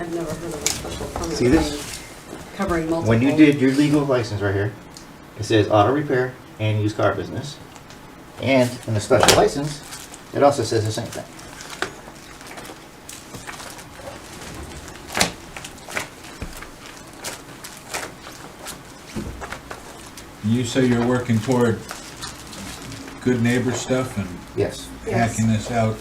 I've never heard of a special permit. See this? thing Covering multiple. When you did your legal license right here, it says auto repair and used car business. And in the special license, it also says the same thing. You say you're working toward good neighbor stuff and Yes. Yes. hacking this out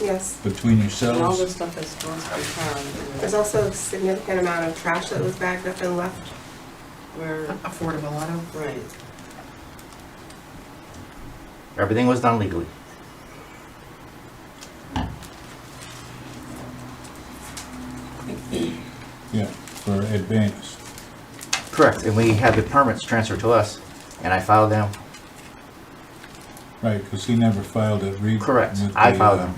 Yes. between And all this yourselves? stuff is gross per There's ton. also a significant amount of trash that was bagged up and left. Where, Affordable auto. right. Everything was done legally. Yeah, for advance. Correct. And we had the permits transferred to us and I filed them. Right, because he never filed it. re- Correct. with I the, filed um,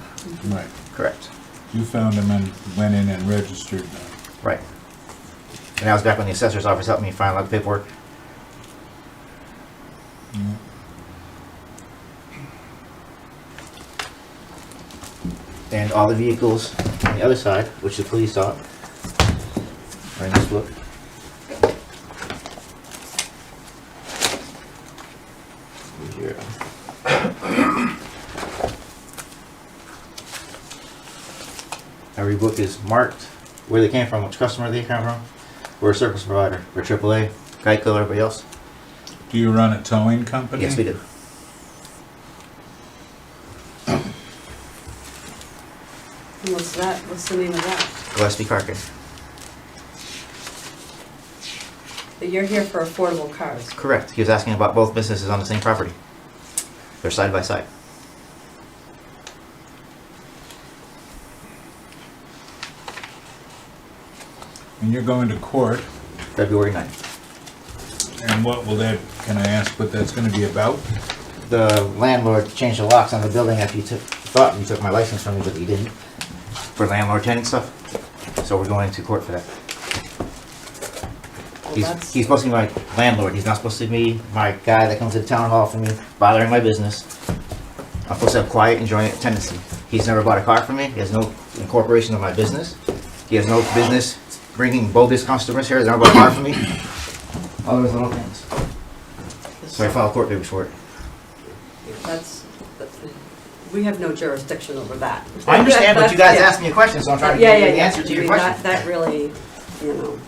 Right. Correct. You found him and went in and registered uh, them. Right. And I was back when the assessor's office helped me find out the paperwork. Yeah. And all the vehicles on the other side, which the police saw, are in this book. Zero. Every book is marked where they came from, which customer they came from. We're a service provider, we're AAA, Geico, everybody else. Do you run a towing company? Yes, we do. And what's that, what's the name of that? Gillespie Carcass. But you're here for affordable cars. Correct. He was asking about both businesses on the same property. They're side by side. And you're going to court, February 9th. and what will that, can I ask what that's gonna be about? The landlord changed the locks on the building after he took, thought he took my license from me, but he didn't. For landlord tenant stuff. So we're going to court for that. Well, He's, that's, he's supposed to be my landlord. He's not supposed to be my guy that comes to the town hall for me, bothering my business. I'm supposed to have quiet, enjoying tenancy. He's never bought a car from me. He has no incorporation of my business. He has no business bringing bogus customers here. They never bought a car from me. All those little things. So I filed court papers for it. that's, that's- we have no jurisdiction over that. I understand, but you guys Yeah. asked me a question, so I'm trying to Yeah, give yeah, you the yeah. answer I to your mean, that- That question. really, you know,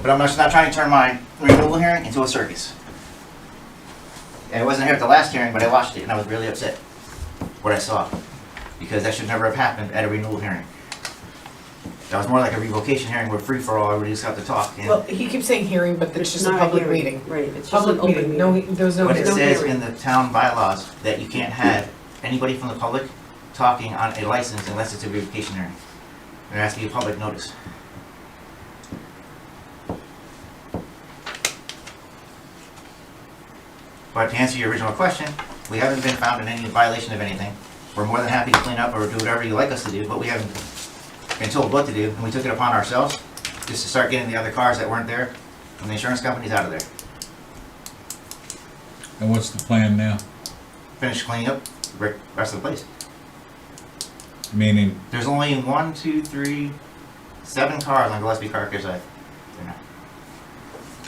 But I'm just not trying to turn my renewal hearing into a circus. And I wasn't here at the last hearing, but I watched it and I was really upset what I saw. Because that should never have happened at a renewal hearing. That was more like a revocation hearing where free for all, everybody just got to talk. and- Well, he keeps saying hearing, but it's just a not public hearing. meeting. Right, it's just an Public open meeting, no, he- there was no But it no hearing. says hearing. in the town bylaws that you can't have anybody from the public talking on a license unless it's a revocation hearing. There has to be a public notice. But to answer your original question, we haven't been found in any violation of anything. We're more than happy to clean up or do whatever you like us to do, but we haven't been told what to do, and we took it upon ourselves just to start getting the other cars that weren't there, and the insurance companies out of there. And what's the plan now? finish cleaning up the re- rest of the place. Meaning, There's only one, two, three, seven cars on Gillespie Car Care side. They're not-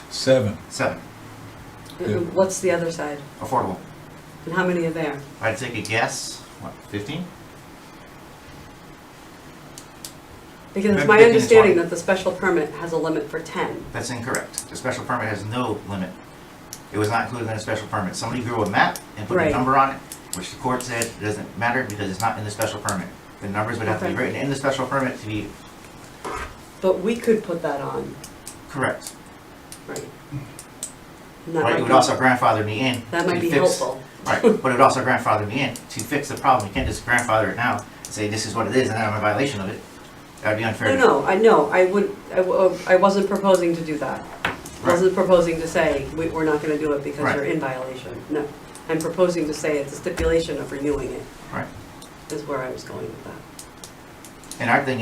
seven, Seven, Yeah. What's the other side? affordable. And how many are there? I'd take a guess, what, 15? Because it's Maybe my they can understanding apply. that the special permit has a limit for ten. That's incorrect. The special permit has no limit. It was not included in the special permit. Somebody drew a map and put a Right. number on it, which the court said doesn't matter because it's not in the special permit. The numbers would have to be Okay. written in the special permit to be But we could put that on, correct. right? And that Right, might it would be- also grandfather me in. That to might be fix- helpful. Right, but it would also grandfather me in to fix the problem. You can't just grandfather it now and say this is what it is and then I'm in violation of it. That would be No, unfair. to- no, I know, I would, I w- I wasn't proposing to do that. I Right. Wasn't proposing to say, we- we're not gonna do it because Right. you're in violation, no. I'm proposing to say it's a stipulation of renewing it, Right. is where I was going with that. And our thing